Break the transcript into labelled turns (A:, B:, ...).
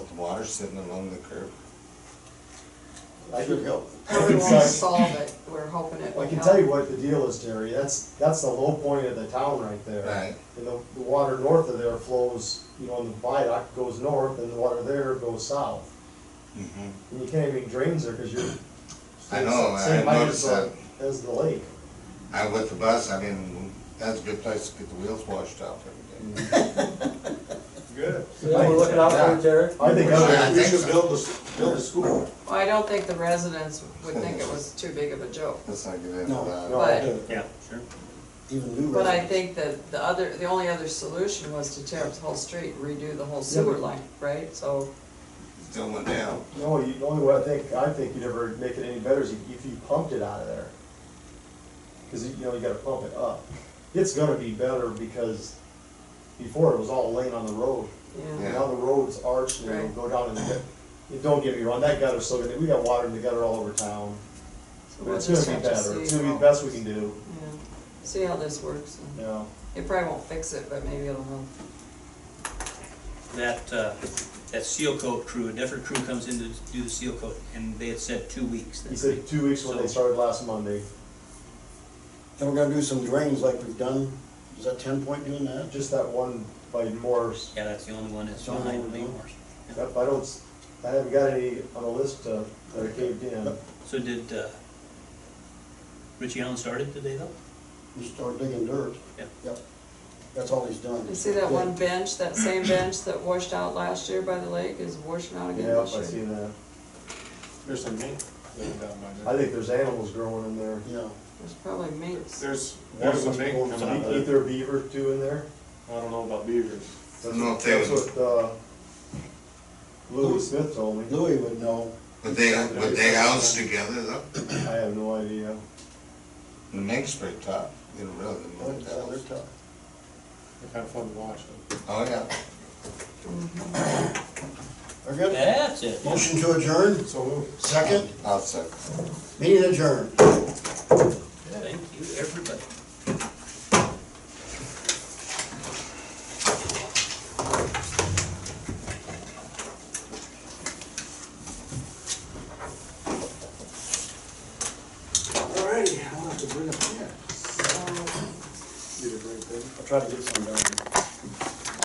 A: cars sitting along the curb.
B: I can help.
C: But we won't solve it, we're hoping it
B: I
C: will
B: can tell you
C: help.
B: what the deal is, Jerry, that's, that's the low point of the town right there.
A: Right.
B: And the, the water north of there flows, you know, and the viaduct goes north, and the water there goes south.
A: Mhm.
B: And you can't even drains there, cause you're.
A: I know, I
B: Same height
A: noticed
B: as the-
A: that.
B: As the lake.
A: I, with the bus, I mean, that's a good place to get the wheels washed off every
B: Mm-hmm.
A: day.
D: Good.
E: You know, we're looking out for it, Jared.
B: I think, I
A: I
D: We
A: think
D: should
A: so.
D: build a, build a school.
C: Well, I don't think the residents would think it was too big of a joke,
A: Let's not get into
E: No,
A: that.
B: no.
C: but,
D: Yeah, sure.
E: Even new
C: but I
E: residents.
C: think that the other, the only other solution was to tear up the whole street, redo the whole sewer line, right? So,
A: Still went down.
B: no, you, the only way I think, I think you'd ever make it any better is if you pumped it out of there. Cause you know, you gotta pump it up. It's gonna be better because before it was all laying on the road.
C: yeah,
A: Yeah.
B: Now the roads arch, and they
C: Right.
B: go down and get, and don't get me wrong, that gutter's still gonna, we got water in the gutter all over town.
C: so we'll
B: It's
C: just
B: gonna be
C: have to
B: better, it's
C: see.
B: gonna be the
C: how-
B: best we can do,
C: yeah. See how this works, and
B: you know.
C: it probably won't fix it, but maybe it'll help.
F: that, uh, that seal coat crew, a different crew comes in to do the seal coat, and they had said two weeks.
B: He said two weeks when they
F: So-
B: started last Monday,
E: And we're gonna do some drains like we've done, is that ten point doing that?
B: just that one by Morse,
F: Yeah, that's the only one that's
E: That's the only
F: behind
E: one.
F: Lemore's.
B: I I don't, s- I haven't got any on the list uh, that I caved in.
E: Yep.
F: So did, uh, Richie Allen start it today though?
E: We start digging dirt.
F: Yeah.
E: Yep. That's all he's done.
C: You see that one bench, that same bench that washed out last year by the lake is washing out again
B: Yeah, I
C: this year?
B: seen that,
D: There's some meat living down by
B: I
D: there.
B: think there's animals growing in there,
E: Yeah,
C: There's probably minks.
D: There's, there's some meat coming out
B: ain't
D: of there.
B: Uh, there a beaver too in there?
D: I don't know about beavers.
B: That's
A: No,
B: what-
A: they
B: That's
A: would-
B: what, uh, Louis Smith told me,
E: Louis would know,
A: But they, but they housed together though.
B: I have no idea.
A: The mink's pretty tough. They're really
B: Oh,
E: but
A: the
E: yeah, they're
A: house.
E: tough.
D: They're kind of fun to watch. though.
A: Oh, yeah.
E: They're good.
F: That's it.
E: Motion to adjourn,
D: So moved.
E: second,
A: I'll second.
E: meeting adjourned.
F: Thank you, everybody.
D: Alrighty, I'll have to bring up, yeah,
C: Um,
D: get it right there.
E: I'll try to get some done.